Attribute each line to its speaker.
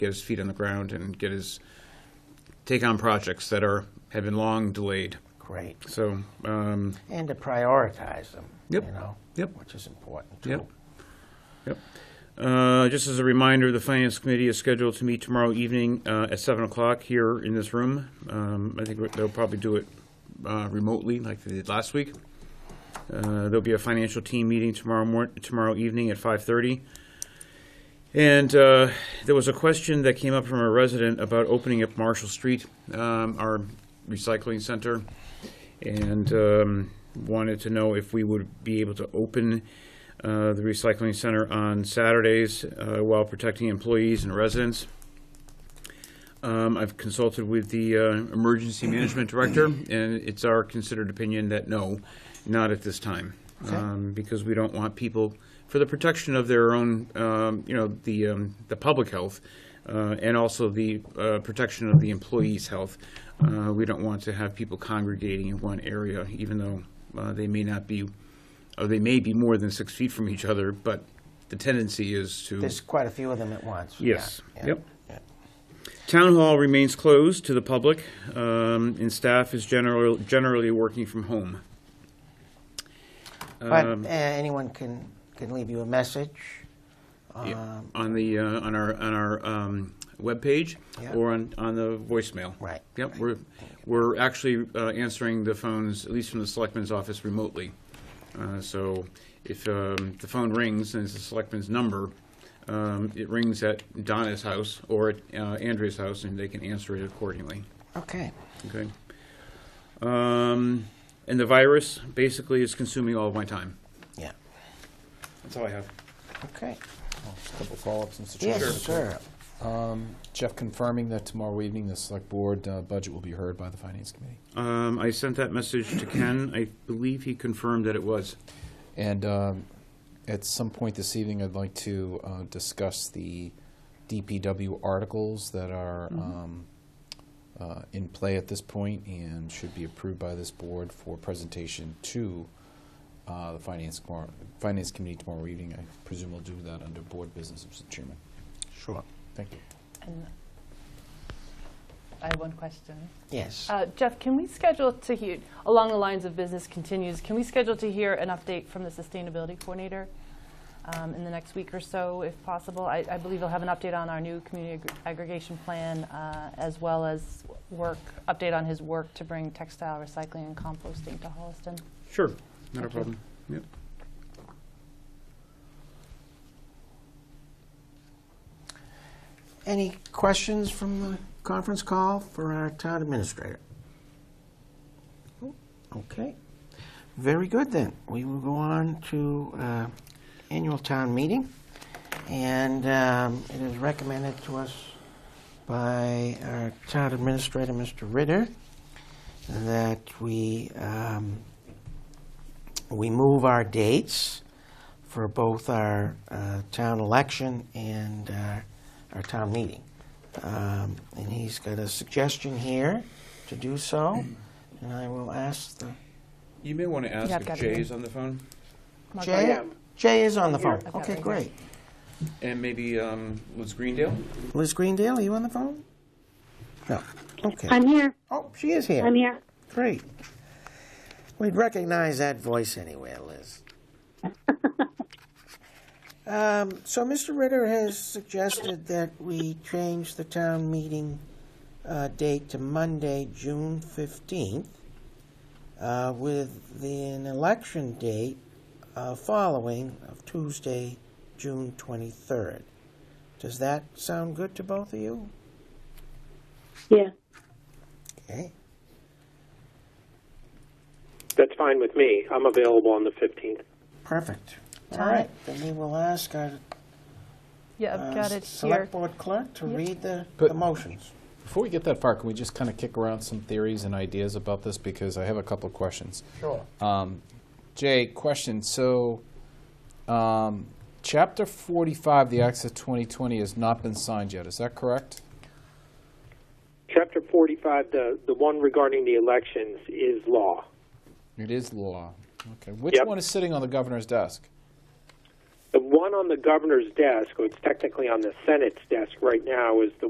Speaker 1: get his feet on the ground and get his take on projects that are have been long delayed.
Speaker 2: Great.
Speaker 1: So um,
Speaker 2: And to prioritize them, you
Speaker 1: Yep.
Speaker 2: know?
Speaker 1: Yep.
Speaker 2: Which is important,
Speaker 1: Yep.
Speaker 2: too.
Speaker 1: Yep. Uh, Just as a reminder, the Finance Committee is scheduled to meet tomorrow evening uh, at 7 o'clock here in this room. Um, I think they'll probably do it uh, remotely like they did last week. Uh, There'll be a financial team meeting tomorrow mor, tomorrow evening at 5:30. And uh, there was a question that came up from a resident about opening up Marshall Street, um, our recycling center, and um, wanted to know if we would be able to open uh, the recycling center on Saturdays uh, while protecting employees and residents. Um, I've consulted with the uh, emergency management director, and it's our considered opinion that no, not at this time, um, because we don't want people, for the protection of their own, um, you know, the um, the public health, uh, and also the uh, protection of the employees' health. Uh, we don't want to have people congregating in one area, even though uh, they may not be, or they may be more than six feet from each other, but the tendency is to
Speaker 2: There's quite a few of them at once. Yeah,
Speaker 1: Yes.
Speaker 2: yeah,
Speaker 1: Yep.
Speaker 2: yeah.
Speaker 1: Town Hall remains closed to the public, um, and staff is general, generally working from home.
Speaker 2: But
Speaker 1: Um,
Speaker 2: uh, anyone can, can leave you a message.
Speaker 1: yeah,
Speaker 2: um,
Speaker 1: On the, uh, on our, on our um, webpage,
Speaker 2: Yeah.
Speaker 1: or on, on the voicemail.
Speaker 2: Right.
Speaker 1: Yep, we're, we're actually uh, answering the phones, at least from the selectman's office remotely. Uh, So if um, the phone rings and it's the selectman's number, um, it rings at Donna's house or at uh, Andrea's house, and they can answer it accordingly.
Speaker 2: Okay.
Speaker 1: Okay. Um, and the virus basically is consuming all of my time.
Speaker 2: Yeah.
Speaker 1: That's all I have.
Speaker 2: Okay.
Speaker 3: Just a couple follow-ups, Mr. Chairman.
Speaker 2: Yes, sir.
Speaker 3: Um, Jeff, confirming that tomorrow evening, the Select Board uh, budget will be heard by the Finance Committee.
Speaker 1: Um, I sent that message to Ken. I believe he confirmed that it was.
Speaker 3: And um, at some point this evening, I'd like to uh, discuss the DPW articles that are um, uh, in play at this point and should be approved by this board for presentation to uh, the Finance Commi- Finance Committee tomorrow evening. I presume we'll do that under Board Business, Mr. Chairman.
Speaker 2: Sure.
Speaker 3: Thank you.
Speaker 4: And I have one question.
Speaker 2: Yes.
Speaker 4: Uh, Jeff, can we schedule to hear, along the lines of business continues, can we schedule to hear an update from the sustainability coordinator um, in the next week or so, if possible? I I believe you'll have an update on our new community aggr- aggregation plan, uh, as well as work, update on his work to bring textile recycling and composting to Holliston.
Speaker 1: Sure. Not a
Speaker 4: Thank you.
Speaker 1: problem. Yep.
Speaker 2: Any questions from the conference call for our town administrator? Okay. Very good, then. We will go on to uh, annual town meeting, and um, it is recommended to us by our town administrator, Mr. Ritter, that we, um, we move our dates for both our uh, town election and our- our town meeting. Um, And he's got a suggestion here to do so, and I will ask the
Speaker 1: You may want to ask
Speaker 4: Yeah, I've
Speaker 1: if
Speaker 4: got it.
Speaker 1: Jay's on the phone,
Speaker 4: Mark, are
Speaker 2: Jay,
Speaker 4: you-
Speaker 2: Jay is on the phone.
Speaker 4: I've got it
Speaker 2: Okay,
Speaker 4: right
Speaker 2: great.
Speaker 1: and maybe um, Liz Greendale.
Speaker 2: Liz Greendale, are you on the phone? No. Okay.
Speaker 5: I'm here.
Speaker 2: Oh, she is here.
Speaker 5: I'm here.
Speaker 2: Great. We'd recognize that voice anywhere, Liz. Um, So Mr. Ritter has suggested that we change the town meeting uh, date to Monday, June 15th, uh, with the- an election date uh, following of Tuesday, June 23rd. Does that sound good to both of you?
Speaker 5: Yeah.
Speaker 2: Okay.
Speaker 6: That's fine with me. I'm available on the 15th.
Speaker 2: Perfect. All
Speaker 4: Got
Speaker 2: right,
Speaker 4: it.
Speaker 2: then we will ask our
Speaker 4: Yeah,
Speaker 2: uh,
Speaker 4: I've got it here.
Speaker 2: Select Board Clerk to
Speaker 4: Yep.
Speaker 2: read the
Speaker 3: But-
Speaker 2: the motions.
Speaker 3: Before we get that far, can we just kind of kick around some theories and ideas about this? Because I have a couple of questions.
Speaker 2: Sure.
Speaker 3: Um, Jay, question. So, um, Chapter 45, the Acts of 2020, has not been signed yet. Is that correct?
Speaker 6: Chapter 45, the, the one regarding the elections, is law.
Speaker 3: It is law. Okay. Which
Speaker 6: Yep.
Speaker 3: one is sitting on the governor's desk?
Speaker 6: The one on the governor's desk, or it's technically on the Senate's desk right now, is the